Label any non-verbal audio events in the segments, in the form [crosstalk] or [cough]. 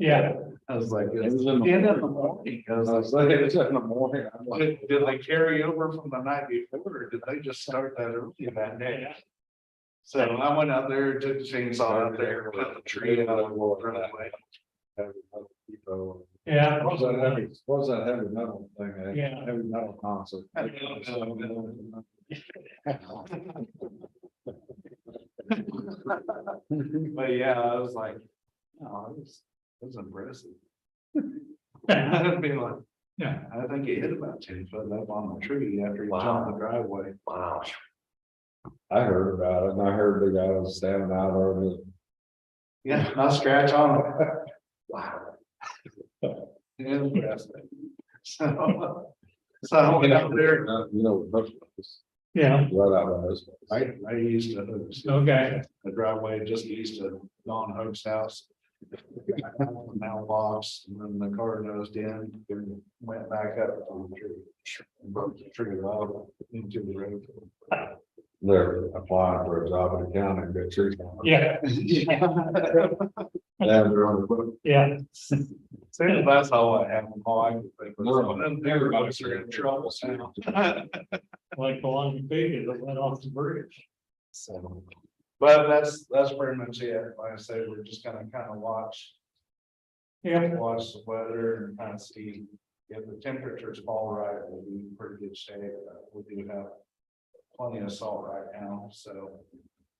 Yeah, I was like. It was in the and in the morning, I was like, it's in the morning. I'm like, did, did they carry over from the night before, or did they just start that early that day? So I went out there, took the chainsaw out there, cut the tree out of the driveway. Yeah. What was that heavy, what was that heavy metal thing? eh? Yeah. Heavy metal concert. I don't know. But yeah, I was like, "Oh, no, it was, it was impressive. [laughs] I'd be like, yeah, I think it hit about ten foot up on the tree after he jumped the driveway. Wow. I heard about it and I heard the guy was standing out over the Yeah, not scratch on it. Wow. [laughs] Interesting. So, so I went out there. Uh, You know, that's Yeah. right out of this. I, I used to. Okay. The driveway just east of Don Hope's house. Now logs, and then the car nosed in and went back up on the tree. and Broke the tree out into the road. They're applying for a job in the county and get trees. down. Yeah. They have their own equipment. Yeah. So that's how I have them all. I could think of. And Everybody's in trouble now. [laughs] Like the long figure that went off the bridge. So, but that's, that's pretty much it. Like I said, we're just gonna kind of watch. Yeah. Watch the weather and kind of see if the temperatures fall right, we'll be in pretty good shape. Uh, We do have plenty of salt right now, so.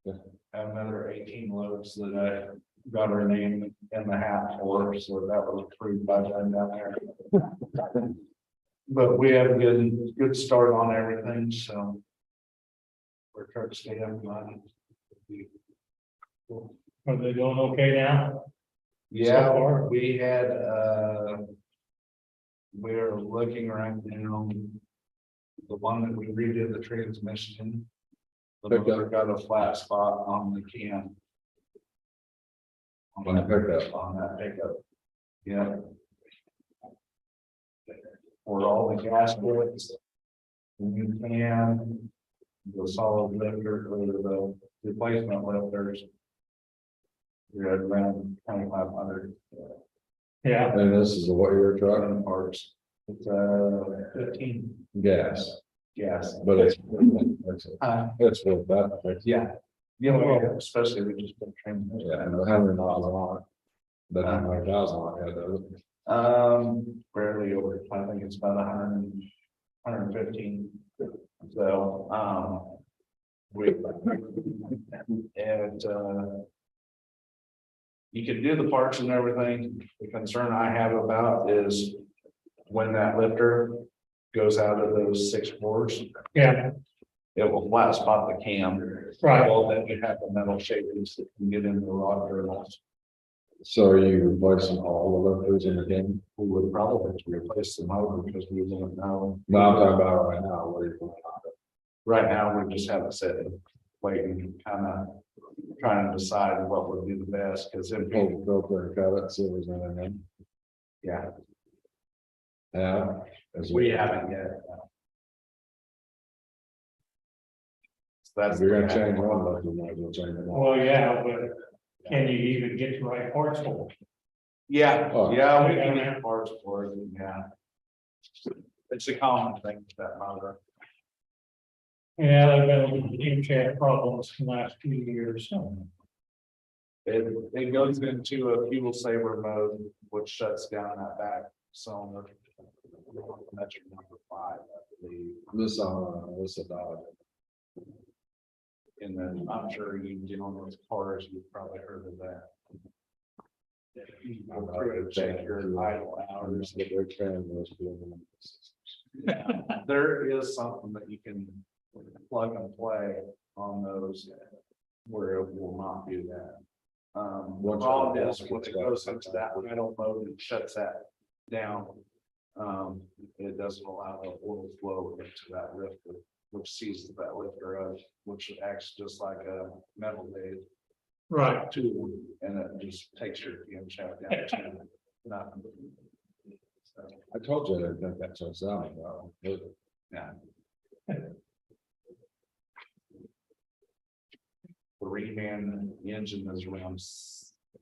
Yeah. Have Another eighteen loads that I got her name in the hat for, so that was approved by them down there. But we have a good, good start on everything, so we're trying to stay up line. Are they doing okay now? Yeah, So far? we had, uh. We're looking right now. The one that we redid the transmission. The Picked up. motor got a flat spot on the can. On the pickup. On that pickup. Yeah. Or all the gas boilers. New can. The solid lifter, or the replacement lifters. You're at around twenty-five hundred. Yeah. And this is a what year truck, Driving parts, it's uh fifteen gas, gas. but it's, it's- Uh, it's worth that. I think. yeah, you know, especially we just been training. Yeah, and a hundred miles on it. But nine hundred thousand on it, uh, though. Um, rarely over, I think it's about a hundred and, hundred and fifteen, so, um. We. And, uh. You can do the parts and everything, the concern I have about is when that lifter goes out of those six boards. Yeah. It will flat spot the cam. Right. Well, then you have the metal shavings that can get in the rod girdles. so are you replacing all the lifters in the game? We would probably have to replace the motor because we don't know. No, I'm talking about right now, what are you doing? Right now, we just have it set, waiting, kind of trying to decide what would be the best, because it, Pull the filter and cut it, see if there's anything, yeah, yeah. as we haven't yet. So That's. If you're gonna change one lifter, might as well change them all. Well, yeah, but can you even get the right parts for it? Yeah, Oh. yeah, we can have parts for it, yeah. It's a common thing with that motor. Yeah, they've been huge had problems the last few years. It, it goes into a fuel saver mode, which shuts down that back cylinder. That's your number five, I believe, This, uh, this about, and then I'm sure you dealing with cars, you've probably heard of that. You go through and check your idle hours. that they're training those people. There is something that you can plug and play on those where it will not do that. Um, the Once- problem is when it goes into that rental mode and shuts that down. Um, it doesn't allow the oil flow into that lifter, which seizes that lifter up, which acts just like a metal blade Right. tool, and it just takes your PM shaft down to nothing. So, I told you, I didn't think that's what it sounded Um, like. yeah. Three man engine is around s-